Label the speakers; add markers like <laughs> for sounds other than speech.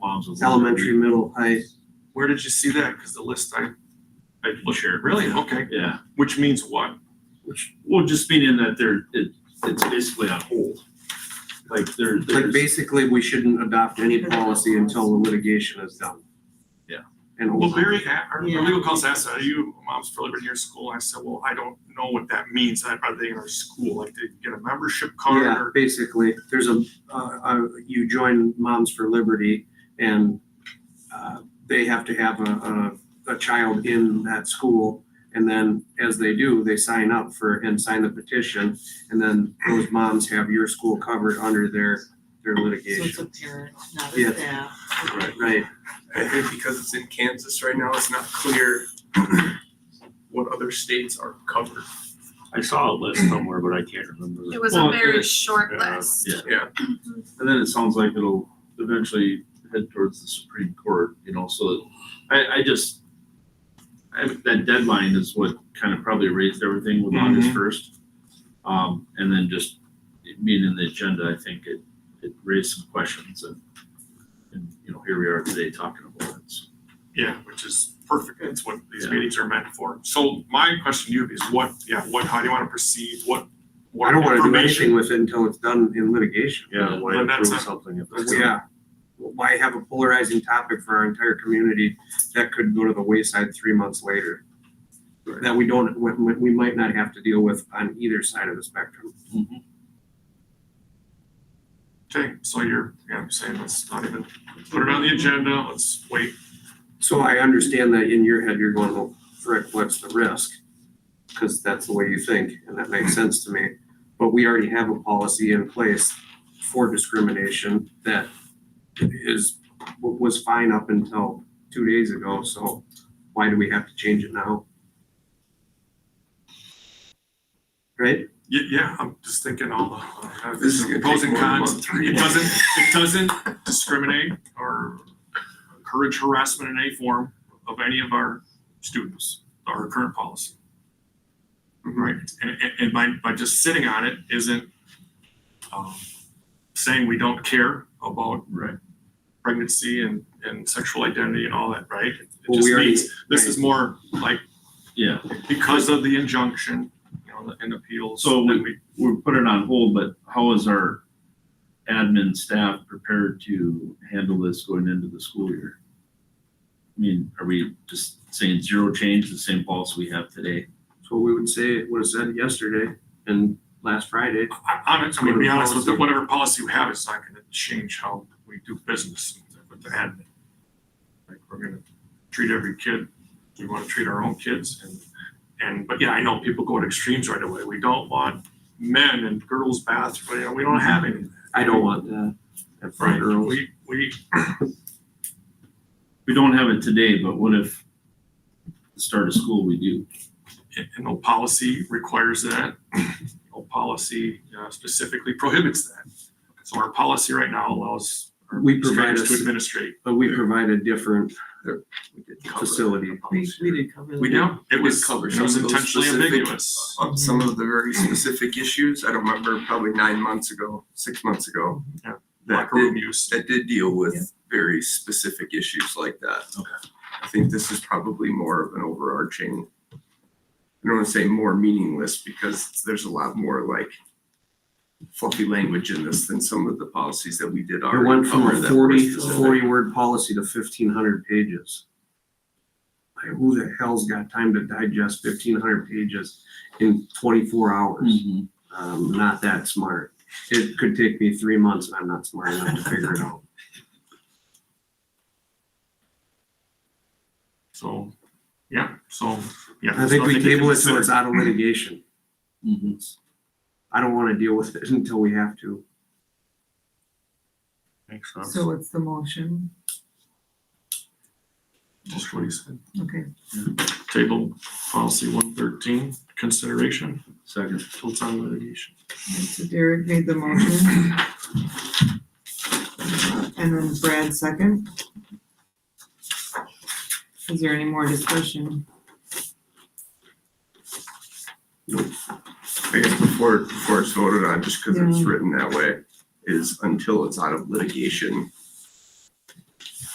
Speaker 1: absolutely.
Speaker 2: elementary, middle, high.
Speaker 3: Where did you see that? Because the list I,
Speaker 1: I will share. it.
Speaker 3: really, okay,
Speaker 1: Yeah,
Speaker 3: which means what?
Speaker 2: Which,
Speaker 1: well, just meaning that they're, it, it's basically on hold. Like they're, they're
Speaker 2: like
Speaker 1: just-
Speaker 2: basically, we shouldn't adopt any policy until the litigation is done.
Speaker 1: Yeah.
Speaker 2: And
Speaker 3: Well,
Speaker 2: over.
Speaker 3: Barry, a- our
Speaker 4: Yeah.
Speaker 3: legal counsel asked, are you mom's for Liberty or school? I said, well, I don't know what that means. I- Are they in our school? Like, did you get a membership card
Speaker 2: Yeah,
Speaker 3: or?
Speaker 2: basically, there's a, uh, uh, you join Moms for Liberty and, uh, they have to have a, a, a child in that school. And then as they do, they sign up for and sign the petition. And then those moms have your school covered under their, their
Speaker 4: So it's
Speaker 2: litigation.
Speaker 4: a parent, not
Speaker 2: Yeah.
Speaker 4: a staff.
Speaker 2: Right,
Speaker 3: I think because it's in Kansas right now, it's not clear <clears throat> what other states are covered.
Speaker 1: I saw a list somewhere, but I can't remember.
Speaker 5: It was a
Speaker 6: Well,
Speaker 5: very
Speaker 6: it-
Speaker 5: short
Speaker 1: yeah,
Speaker 5: list.
Speaker 6: yeah.
Speaker 5: Mhm.
Speaker 6: And then it sounds like it'll eventually head towards the Supreme Court, you know, so I, I just, I, that deadline is what kind of probably raised everything with
Speaker 2: Mm-hmm.
Speaker 6: August
Speaker 3: Mhm.
Speaker 6: first. Um, and then just it being in the agenda, I think it, it raised some questions and, and, you know, here we are today talking about it. So
Speaker 3: Yeah, which is perfect. That's what these
Speaker 6: Yeah.
Speaker 3: meetings are meant for. So my question to you is what, yeah, what, how do you want to proceed? What? what
Speaker 2: I don't wanna do
Speaker 3: information-
Speaker 2: anything with it until it's done in litigation.
Speaker 6: Yeah, why
Speaker 3: But that's
Speaker 6: approve
Speaker 3: not-
Speaker 6: something if it's.
Speaker 2: Yeah. Why have a polarizing topic for our entire community that could go to the wayside three months later? That we don't, we- we, we might not have to deal with on either side of the spectrum.
Speaker 6: Mhm.
Speaker 3: Okay, so you're, yeah, I'm saying let's not even put it on the agenda. Let's wait.
Speaker 2: So I understand that in your head, you're going, well, frick, what's the risk? Cause that's the way you think, and that makes sense to me. But we already have a policy in place for discrimination that is, was fine up until two days ago, so why do we have to change it now? Right?
Speaker 3: Yeah, yeah, I'm just thinking all the. uh,
Speaker 7: This is gonna take
Speaker 3: Pros and
Speaker 7: more than a
Speaker 3: cons.
Speaker 7: month.
Speaker 3: It doesn't, it doesn't discriminate or encourage harassment in any form of any of our students, our current policy.
Speaker 7: Mm-hmm.
Speaker 3: Right, and, and, and by, by just sitting on it isn't, um, saying we don't care about
Speaker 6: Right.
Speaker 3: pregnancy and, and sexual identity and all that, right? It
Speaker 2: Well,
Speaker 3: just
Speaker 2: we already-
Speaker 3: means, this is more like
Speaker 6: Yeah,
Speaker 3: because of the injunction, you know, and appeals.
Speaker 6: So
Speaker 3: that we,
Speaker 6: we're putting on hold, but how is our admin staff prepared to handle this going into the school year? I mean, are we just saying zero change, the same policy we have today?
Speaker 2: So we would say, it would have said yesterday and last Friday.
Speaker 3: I- I'm, I'm gonna be honest with you, whatever policy we have, it's not gonna change how we do business with the admin. Like, we're gonna treat every kid, we wanna treat our own kids and, and, but yeah, I know people go to extremes right away. We don't want men and girls bathrooms, you know, we don't have any. of that,
Speaker 2: I don't want that. That for girls.
Speaker 3: We, we,
Speaker 6: We don't have it today, but what if the start of school we do?
Speaker 3: and no policy requires that. No policy uh, specifically prohibits that. So our policy right now allows our
Speaker 2: We provide
Speaker 3: administrators to
Speaker 2: us-
Speaker 3: administrate.
Speaker 2: But we provide a different uh, facility.
Speaker 4: We, we did cover that.
Speaker 3: We do, it
Speaker 7: did
Speaker 3: was,
Speaker 7: cover
Speaker 3: it
Speaker 7: some
Speaker 3: was
Speaker 7: of those
Speaker 3: intentionally
Speaker 7: specific-
Speaker 3: ambiguous.
Speaker 7: on some of the very specific issues. I don't remember, probably nine months ago, six months ago.
Speaker 3: Yeah.
Speaker 7: That
Speaker 3: Locker room
Speaker 7: did,
Speaker 3: use.
Speaker 7: that did deal
Speaker 4: Yeah.
Speaker 7: with very specific issues like that.
Speaker 6: Okay.
Speaker 7: I think this is probably more of an overarching, I don't want to say more meaningless because there's a lot more like fluffy language in this than some of the policies that we did
Speaker 2: It
Speaker 7: already.
Speaker 2: went from
Speaker 7: cover
Speaker 2: a
Speaker 7: that were
Speaker 2: 40
Speaker 7: specific.
Speaker 2: 40 word policy to fifteen hundred pages. Like, who the hell's got time to digest fifteen hundred pages in twenty-four hours?
Speaker 6: Mm-hmm.
Speaker 3: Hmm.
Speaker 2: Um, not that smart. It could take me three months and I'm not smart enough to figure it out.
Speaker 3: So, yeah, so, yeah.
Speaker 2: I think we
Speaker 3: there's nothing to
Speaker 2: table it so it's
Speaker 3: consider.
Speaker 2: out of litigation.
Speaker 6: Mhm.
Speaker 2: I don't wanna deal with it <laughs> until we have to.
Speaker 1: Makes sense.
Speaker 4: So it's the motion,
Speaker 3: Just what he said.
Speaker 4: okay.
Speaker 3: Table policy one thirteen, consideration,
Speaker 6: Second,
Speaker 3: full time litigation.
Speaker 4: And So Derek made the motion. And then Brad second. Is there any more discussion?
Speaker 7: I guess before, before it's voted on, just because it's written that way, is until it's out of litigation,